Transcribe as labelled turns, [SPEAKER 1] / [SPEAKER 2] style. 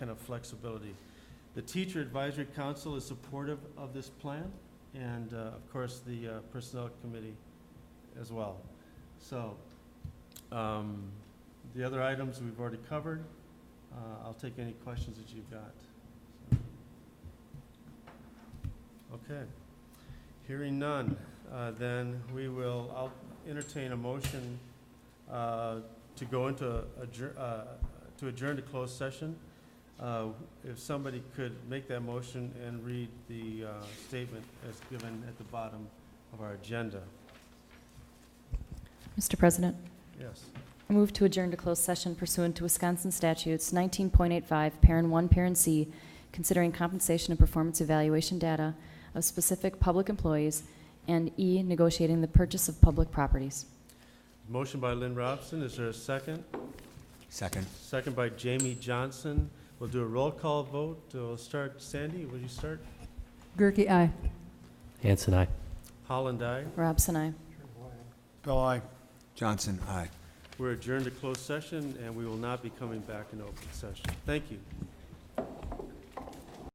[SPEAKER 1] kind of flexibility. The Teacher Advisory Council is supportive of this plan, and uh, of course, the uh, Personnel Committee as well. So, um, the other items we've already covered. Uh, I'll take any questions that you've got. Okay. Hearing none, uh, then we will, I'll entertain a motion uh, to go into adjourn, to adjourn to closed session. Uh, If somebody could make that motion and read the uh, statement as given at the bottom of our agenda.
[SPEAKER 2] Mr. President,
[SPEAKER 1] Yes.
[SPEAKER 2] I move to adjourn to closed session pursuant to Wisconsin statutes 19.85, parent 1, parent C, considering compensation and performance evaluation data of specific public employees, and E, negotiating the purchase of public properties.
[SPEAKER 1] Motion by Lynn Robson, is there a second?
[SPEAKER 3] Second.
[SPEAKER 1] Second by Jamie Johnson. We'll do a roll call vote. Uh, We'll start, Sandy, will you start?
[SPEAKER 4] Gerke, aye.
[SPEAKER 5] Hanson, I.
[SPEAKER 1] Holland, aye.
[SPEAKER 2] Robson, I.
[SPEAKER 3] Bill, aye. Johnson, aye.
[SPEAKER 1] We're adjourned to closed session, and we will not be coming back in open session. Thank you.